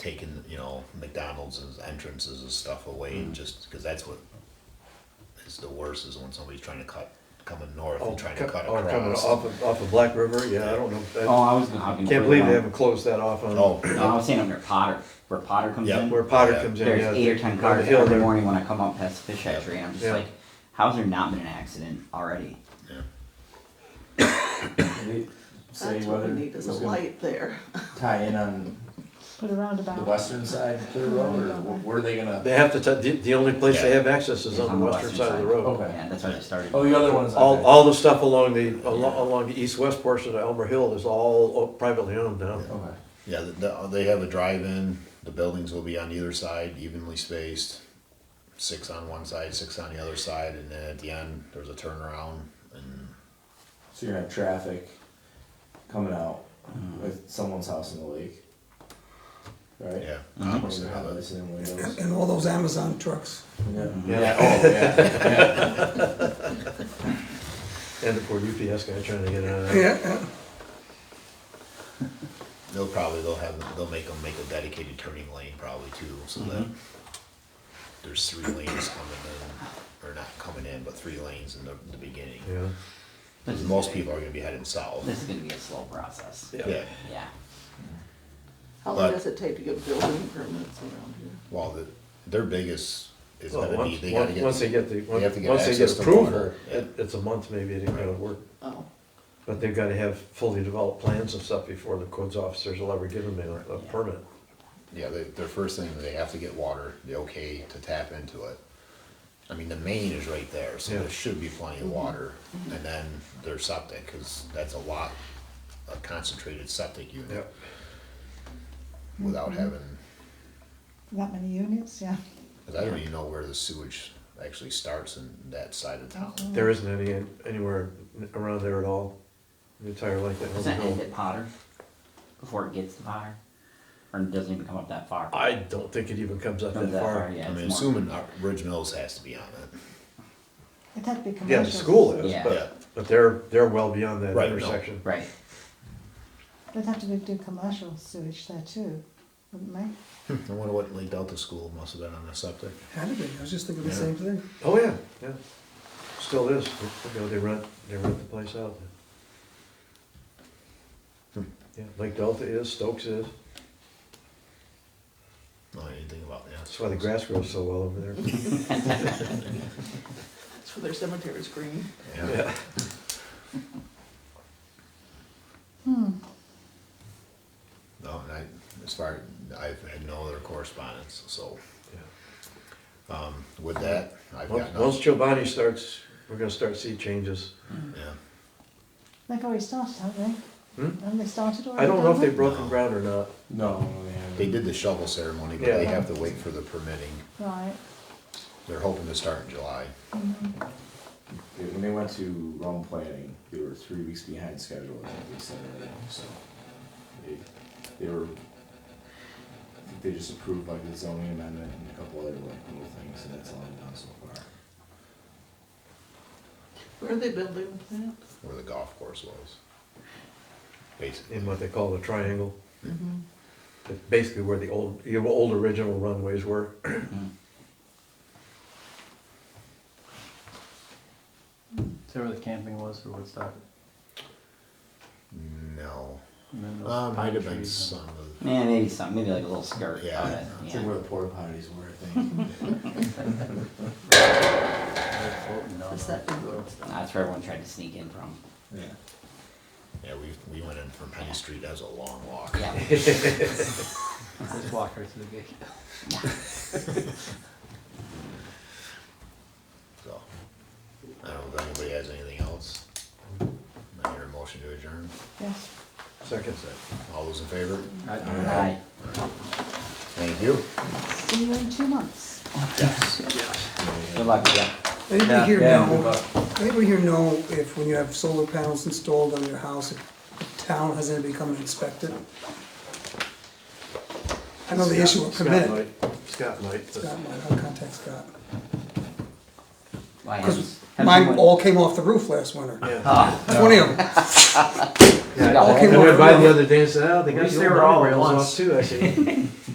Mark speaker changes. Speaker 1: taking, you know, McDonald's as entrances and stuff away,
Speaker 2: Mm.
Speaker 1: and just, cause that's what is the worst, is when somebody's trying to cut, coming north
Speaker 2: Oh,
Speaker 1: and trying to
Speaker 2: co-
Speaker 1: cut
Speaker 2: oh, coming
Speaker 1: across.
Speaker 2: off of, off of Black River, yeah, I don't
Speaker 3: Oh,
Speaker 2: know,
Speaker 3: I was gonna hop
Speaker 2: I
Speaker 3: in.
Speaker 2: can't
Speaker 3: further
Speaker 2: believe they
Speaker 3: on.
Speaker 2: haven't closed that off on,
Speaker 1: Oh,
Speaker 3: No, I was saying up near Potter, where Potter comes
Speaker 1: Yeah.
Speaker 3: in.
Speaker 2: where Potter
Speaker 1: Yeah.
Speaker 2: comes in, yeah.
Speaker 3: There's eight or ten
Speaker 2: on the
Speaker 3: cars
Speaker 2: hill
Speaker 3: every
Speaker 2: there.
Speaker 3: morning when I come up past the fish hatchery, and I'm just
Speaker 2: Yeah.
Speaker 3: like, how's there not been an accident already?
Speaker 1: Yeah.
Speaker 4: Can we Say
Speaker 5: That's what
Speaker 4: whether
Speaker 5: we need
Speaker 4: it
Speaker 5: is a
Speaker 4: was gonna
Speaker 5: light there.
Speaker 4: tie in on
Speaker 6: Put a
Speaker 4: the
Speaker 6: roundabout.
Speaker 4: western side of Clear Road,
Speaker 5: Mm-hmm.
Speaker 4: or wh- where are they gonna?
Speaker 2: They have to, t- the, the only place they
Speaker 1: Yeah.
Speaker 2: have access is on the western side of the road.
Speaker 4: Okay.
Speaker 3: Yeah, that's where they started.
Speaker 4: Oh, the other one's.
Speaker 2: All,
Speaker 4: okay.
Speaker 2: all the stuff along the, along, along the east-west portion of Elmer Hill is all o- privately owned now.
Speaker 4: Okay.
Speaker 1: Yeah, the- the- they have a drive-in, the buildings will be on either side, evenly spaced, six on one side, six on the other side, and then at the end, there's a turnaround, and
Speaker 4: So you're gonna have traffic coming out
Speaker 2: Mm-hmm.
Speaker 4: with someone's house in the lake, right?
Speaker 1: yeah.
Speaker 3: Mhm.
Speaker 2: Mm-hmm.
Speaker 1: opposite
Speaker 4: Or
Speaker 1: of it.
Speaker 4: obviously in windows.
Speaker 7: and all those Amazon trucks.
Speaker 4: Yeah.
Speaker 2: Yeah.
Speaker 4: Yeah. Oh, yeah.
Speaker 2: And the poor UPS guy trying to get out of there.
Speaker 7: Yeah, yeah.
Speaker 1: They'll probably, they'll have, they'll make them make a dedicated turning lane probably too, so that
Speaker 2: Mm-hmm.
Speaker 1: there's three lanes coming in, or not coming in, but three lanes in the, the beginning.
Speaker 2: Yeah.
Speaker 3: This is
Speaker 1: Most
Speaker 3: gonna-
Speaker 1: people are gonna be heading south,
Speaker 3: This is gonna be a slow process.
Speaker 2: Yeah.
Speaker 1: yeah,
Speaker 3: Yeah.
Speaker 5: How
Speaker 1: But-
Speaker 5: long does it take to get building permits around here?
Speaker 1: well, the, their biggest is
Speaker 2: Well,
Speaker 1: gonna be,
Speaker 2: once,
Speaker 1: they gotta
Speaker 2: once-
Speaker 1: get.
Speaker 2: once they get the, once
Speaker 1: have to get
Speaker 2: once they
Speaker 1: access
Speaker 2: get
Speaker 1: to
Speaker 2: approval,
Speaker 1: water, yeah.
Speaker 2: it, it's a month maybe, they gotta work.
Speaker 5: Oh,
Speaker 2: But they've gotta have fully developed plans and stuff before the codes officers will ever give them a, a
Speaker 3: Yeah.
Speaker 2: permit.
Speaker 1: Yeah, they, their first thing, they have to get water, the okay to tap into it. I mean, the main is right there, so
Speaker 2: Yeah. Mm-hmm.
Speaker 1: there should be plenty of water, and then their septic, cause that's a lot, a concentrated septic unit,
Speaker 2: Mm-hmm.
Speaker 1: without having,
Speaker 6: That many units, yeah.
Speaker 1: cause I don't even know where the sewage actually starts in that side of
Speaker 3: Oh,
Speaker 1: town.
Speaker 2: There isn't any, anywhere around there at all, the entire length of
Speaker 3: Doesn't
Speaker 2: Elm
Speaker 3: it
Speaker 2: Hill.
Speaker 3: end at Potter? Before it gets to Potter? Or it doesn't even come up that far?
Speaker 2: I don't think it even comes up that
Speaker 3: Comes that
Speaker 2: far.
Speaker 3: far, yeah.
Speaker 1: I mean,
Speaker 3: it's more-
Speaker 1: assuming our Ridge Mills has to be on it,
Speaker 6: It had to be
Speaker 2: Yeah,
Speaker 6: commercial.
Speaker 2: the school is,
Speaker 1: yeah,
Speaker 3: Yeah.
Speaker 2: but, but they're, they're well beyond that
Speaker 1: Right, no.
Speaker 2: intersection.
Speaker 3: Right.
Speaker 6: They'd have to be- do commercial sewage there too, wouldn't they?
Speaker 1: I wonder what Lake Delta School must have been on the septic.
Speaker 7: Had to be, I was just thinking the same thing.
Speaker 2: Oh, yeah, yeah. Still is, you know, they rent, they rent the place out.
Speaker 1: Hmm.
Speaker 2: Yeah, Lake Delta is, Stokes is,
Speaker 1: No, I didn't think about, yeah.
Speaker 2: that's why the grass grows so well over there.
Speaker 5: that's where their cemetery's green.
Speaker 1: Yeah.
Speaker 6: Hmm,
Speaker 1: No, and I, as far, I've had no other correspondence, so,
Speaker 2: Yeah.
Speaker 1: um, with that, I've got
Speaker 2: Once- Once
Speaker 1: nothing.
Speaker 2: Chobani starts, we're gonna start see changes.
Speaker 1: Yeah,
Speaker 6: they've already started, haven't they?
Speaker 2: Hmm?
Speaker 6: Have they started
Speaker 7: Oh,
Speaker 6: already?
Speaker 2: I don't know if they've
Speaker 6: Dover?
Speaker 2: broken ground or not.
Speaker 4: No.
Speaker 1: they did the shovel ceremony, but they
Speaker 2: Yeah.
Speaker 1: have to wait for the permitting,
Speaker 6: Right, mm-hmm,
Speaker 1: they're hoping to start in July.
Speaker 4: They- When they went to Rome planning, they were three weeks behind schedule. I think they said that, so they, they were. I think they just approved like the zoning amendment and a couple other like little things, and that's all I've done so far.
Speaker 5: Where are they building that?
Speaker 1: Where the golf course was. Basically,
Speaker 2: in what they call the triangle.
Speaker 7: Mm-hmm.
Speaker 2: That's Basically where the old, the old original runways were.
Speaker 8: Is that where the camping was for Woodstock?
Speaker 1: no,
Speaker 8: And then those
Speaker 1: uh,
Speaker 8: pine
Speaker 1: might have been
Speaker 8: trees and-
Speaker 1: some of,
Speaker 3: Man, maybe some, maybe like a little skirt.
Speaker 1: Yeah.
Speaker 3: of it,
Speaker 4: I
Speaker 3: Yeah.
Speaker 4: think where the porta potties were, I think.
Speaker 8: They're floating down
Speaker 5: Is
Speaker 8: there.
Speaker 5: that in Woodstock?
Speaker 3: That's where everyone tried to sneak in from.
Speaker 4: Yeah.
Speaker 1: yeah, we, we went in from Penny Street, that was a long walk.
Speaker 3: Yeah.
Speaker 8: Just walk right to the gate.
Speaker 1: So, I don't know if anybody has anything else. I hear a motion to adjourn,
Speaker 6: yes.
Speaker 2: Second,
Speaker 1: all those in favor?
Speaker 3: Right.
Speaker 1: Thank you.
Speaker 6: See you in two months.
Speaker 3: Good luck, yeah.
Speaker 7: Anybody here
Speaker 8: Yeah, good
Speaker 7: know,
Speaker 8: luck.
Speaker 7: anybody here know if when you have solar panels installed on your house, if the town has anybody come and inspect it? I know the issue of
Speaker 2: Scott
Speaker 7: permit.
Speaker 2: might, Scott might. but-
Speaker 7: Scott might, I'll contact Scott.
Speaker 3: Why,
Speaker 7: Because
Speaker 3: have- have
Speaker 7: mine
Speaker 3: someone-
Speaker 7: all came off the roof last winter,
Speaker 2: Yeah.
Speaker 8: Ah.
Speaker 3: Oh,
Speaker 7: twenty of them.
Speaker 2: Yeah,
Speaker 3: No,
Speaker 2: I
Speaker 7: okay,
Speaker 2: went
Speaker 7: well,
Speaker 2: by the
Speaker 7: well.
Speaker 2: other day and said, oh, they got
Speaker 8: least
Speaker 2: the
Speaker 8: they
Speaker 2: old
Speaker 8: were all at
Speaker 2: rails
Speaker 8: once.
Speaker 2: off too, I said.